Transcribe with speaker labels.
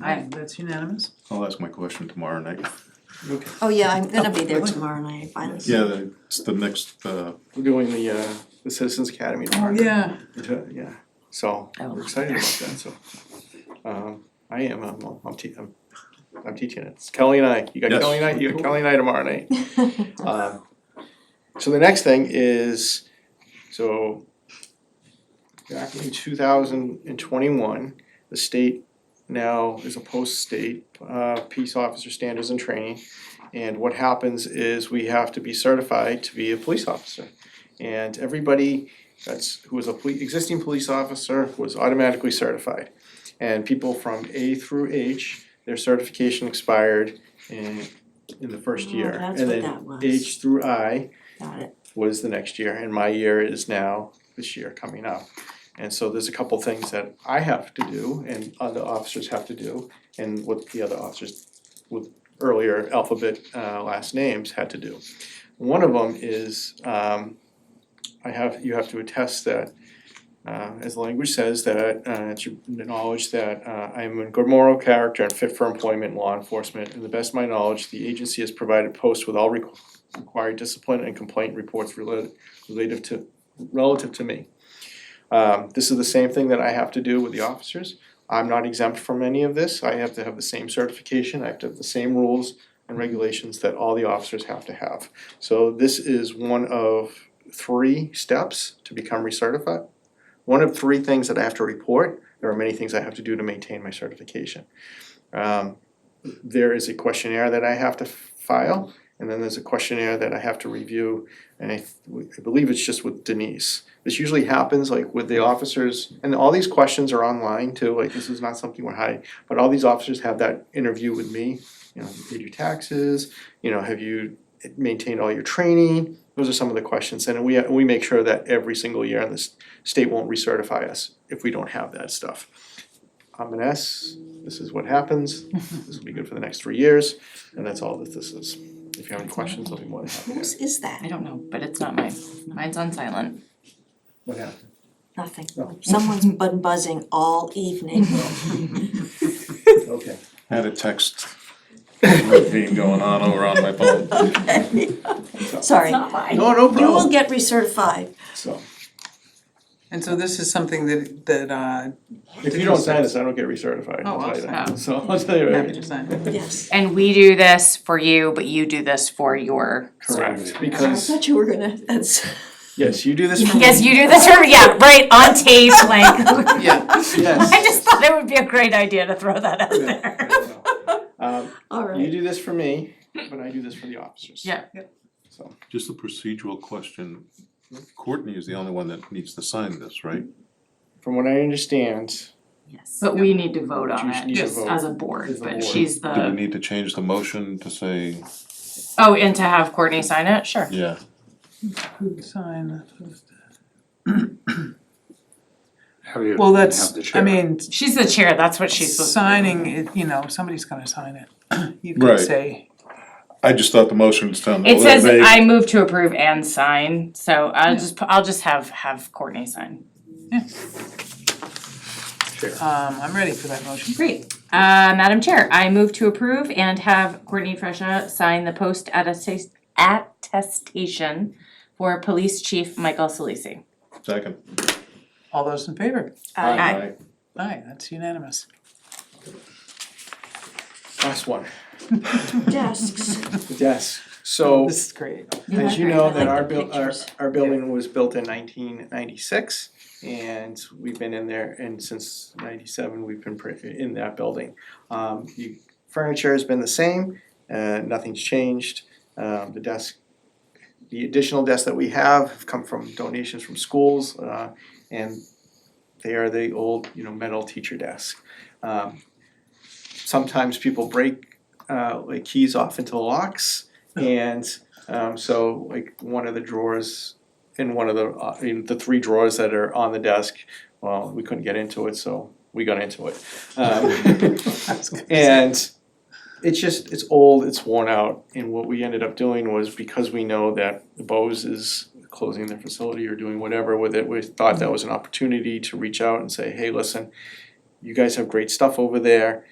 Speaker 1: Aye, that's unanimous.
Speaker 2: I'll ask my question tomorrow night.
Speaker 3: Okay,
Speaker 4: Oh, yeah, I'm gonna be there
Speaker 3: Next-
Speaker 4: tomorrow night, finally.
Speaker 2: Yeah, the- it's the next, uh,
Speaker 3: we're doing the uh the Citizens Academy
Speaker 1: Oh,
Speaker 3: tomorrow.
Speaker 1: yeah,
Speaker 3: To- Yeah, so we're excited about that, so. Um I am, I'm I'm te- I'm I'm teaching it. It's Kelly and I, you got
Speaker 2: Yes.
Speaker 3: Kelly and I, you got Kelly and I tomorrow night. Um so the next thing is, so back in two thousand and twenty-one, the state now is a post-state uh peace officer standards and training. And what happens is we have to be certified to be a police officer. And everybody that's who was a police, existing police officer was automatically certified. And people from A through H, their certification expired in in the first
Speaker 4: Oh,
Speaker 3: year.
Speaker 4: that's
Speaker 3: And
Speaker 4: what
Speaker 3: then
Speaker 4: that was.
Speaker 3: H through I,
Speaker 4: Got it.
Speaker 3: was the next year, and my year is now this year coming up. And so there's a couple things that I have to do and other officers have to do, and what the other officers with earlier alphabet uh last names had to do. One of them is um I have, you have to attest that uh as the language says that uh it's your knowledge that uh I am in good moral character and fit for employment in law enforcement. And the best of my knowledge, the agency has provided posts with all requ- required discipline and complaint reports related relative to relative to me. Um, this is the same thing that I have to do with the officers. I'm not exempt from any of this. I have to have the same certification. I have to have the same rules and regulations that all the officers have to have. So this is one of three steps to become recertified. One of three things that I have to report. There are many things I have to do to maintain my certification. Um, there is a questionnaire that I have to file. And then there's a questionnaire that I have to review, and I, th- I believe it's just with Denise. This usually happens like with the officers, and all these questions are online too, like this is not something we're hiding. But all these officers have that interview with me, you know, have you paid your taxes, you know, have you maintained all your training? Those are some of the questions, and we, we make sure that every single year, and the s- state won't recertify us if we don't have that stuff. I'm an S, this is what happens, this will be good for the next three years, and that's all that this is. If you have any questions, I'll be more than happy to.
Speaker 4: Whose is
Speaker 5: I
Speaker 4: that?
Speaker 5: don't know, but it's not mine. Mine's on silent.
Speaker 3: What happened?
Speaker 4: Nothing.
Speaker 3: No.
Speaker 4: Someone's been buzzing all evening.
Speaker 3: Okay.
Speaker 2: had a text routine going on over on my phone.
Speaker 4: Sorry.
Speaker 5: mine.
Speaker 3: No, no
Speaker 4: You
Speaker 3: problem.
Speaker 4: will get recertified.
Speaker 3: So,
Speaker 1: and so this is something that, that, uh,
Speaker 3: if you don't sign this, I don't get recertified,
Speaker 1: Oh,
Speaker 3: I'll tell you
Speaker 5: awesome.
Speaker 3: that. So, I'll tell you
Speaker 1: happy
Speaker 3: right.
Speaker 1: to sign.
Speaker 4: Yes.
Speaker 5: And we do this for you, but you do this for your.
Speaker 3: Correct,
Speaker 4: I
Speaker 3: because,
Speaker 4: thought you were gonna, that's,
Speaker 3: yes, you do this for me.
Speaker 5: Yes, you do this for me. Yeah, right on tape. Like
Speaker 1: Yeah,
Speaker 5: I
Speaker 3: Yes.
Speaker 5: just thought it would be a great idea to throw that out there.
Speaker 3: Um,
Speaker 4: all
Speaker 3: you
Speaker 4: right.
Speaker 3: do this for me, but I do this for the officers.
Speaker 5: Yeah.
Speaker 3: So,
Speaker 2: Just a procedural question. Courtney is the only one that needs to sign this, right?
Speaker 3: from what I understand,
Speaker 5: Yes. But we need to vote
Speaker 3: you
Speaker 5: on
Speaker 3: should need
Speaker 5: it
Speaker 3: to
Speaker 1: Yes.
Speaker 5: as
Speaker 3: vote.
Speaker 5: a board,
Speaker 3: As a
Speaker 5: but
Speaker 3: board.
Speaker 5: she's
Speaker 2: Do we
Speaker 5: the,
Speaker 2: need to change the motion to say,
Speaker 5: oh, and to have Courtney sign it? Sure.
Speaker 2: yeah,
Speaker 1: sign.
Speaker 6: Have you-
Speaker 1: Well,
Speaker 6: have the
Speaker 1: that's, I
Speaker 6: chair.
Speaker 1: mean,
Speaker 5: She's the chair. That's what she's supposed to do.
Speaker 1: signing, it. you know, somebody's gonna sign it. You
Speaker 2: Right.
Speaker 1: could say,
Speaker 2: I just thought the motion sounded a
Speaker 5: It
Speaker 2: little vague.
Speaker 5: says I move to approve and sign, so I'll just, pu- I'll just have, have Courtney sign.
Speaker 3: sure.
Speaker 1: um, I'm ready for that motion.
Speaker 5: Great. Uh, Madam Chair, I move to approve and have Courtney Fresha sign the post attesta- attestation for Police Chief Michael Solisi.
Speaker 2: Second.
Speaker 1: All those in favor?
Speaker 4: Aye.
Speaker 1: Aye, that's unanimous.
Speaker 3: Last one,
Speaker 4: Desks.
Speaker 3: yes,
Speaker 6: Oh.
Speaker 3: so.
Speaker 1: This is great.
Speaker 3: As you
Speaker 5: Yeah, I
Speaker 3: know, that
Speaker 5: like
Speaker 3: our
Speaker 5: the
Speaker 3: buil- our
Speaker 5: pictures.
Speaker 3: our building was built in nineteen ninety-six and we've been in there and since ninety-seven, we've been pre- in that building. Um the furniture has been the same, uh nothing's changed, um the desk, the additional desks that we have have come from donations from schools, uh and they are the old, you know, metal teacher desk. Um sometimes people break uh like keys off into locks and um so like one of the drawers in one of the uh, in the three drawers that are on the desk, well, we couldn't get into it, so we got into it. Um and it's just it's old, it's worn out, and what we ended up doing was because we know that the Bose is closing their facility or doing whatever with it, we thought that was an opportunity to reach out and say, hey, listen, you guys have great stuff over there.